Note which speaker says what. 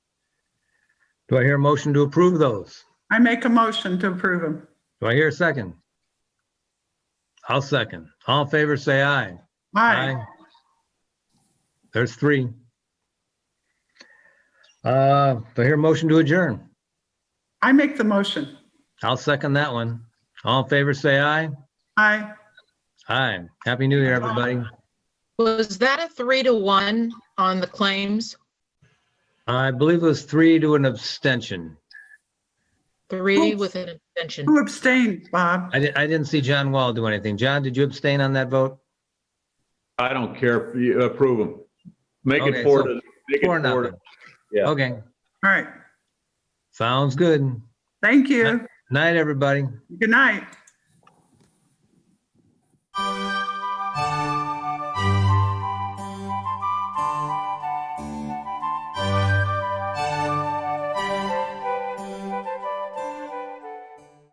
Speaker 1: Do I hear a motion to approve those?
Speaker 2: I make a motion to approve them.
Speaker 1: Do I hear a second? I'll second. All in favor, say aye.
Speaker 2: Aye.
Speaker 1: There's three. Uh, do I hear a motion to adjourn?
Speaker 2: I make the motion.
Speaker 1: I'll second that one. All in favor, say aye.
Speaker 2: Aye.
Speaker 1: Aye. Happy New Year, everybody.
Speaker 3: Was that a three to one on the claims?
Speaker 1: I believe it was three to an abstention.
Speaker 3: Three with an abstention.
Speaker 2: Who abstained, Bob?
Speaker 1: I didn't, I didn't see John Wall do anything. John, did you abstain on that vote?
Speaker 4: I don't care. You Approve them. Make
Speaker 1: Okay,
Speaker 4: it four
Speaker 1: so
Speaker 4: to, make it
Speaker 1: Four,
Speaker 4: four
Speaker 1: nothing.
Speaker 4: to. Yeah.
Speaker 1: Okay,
Speaker 2: All right.
Speaker 1: sounds good.
Speaker 2: Thank you.
Speaker 1: Night, everybody.
Speaker 2: Good night.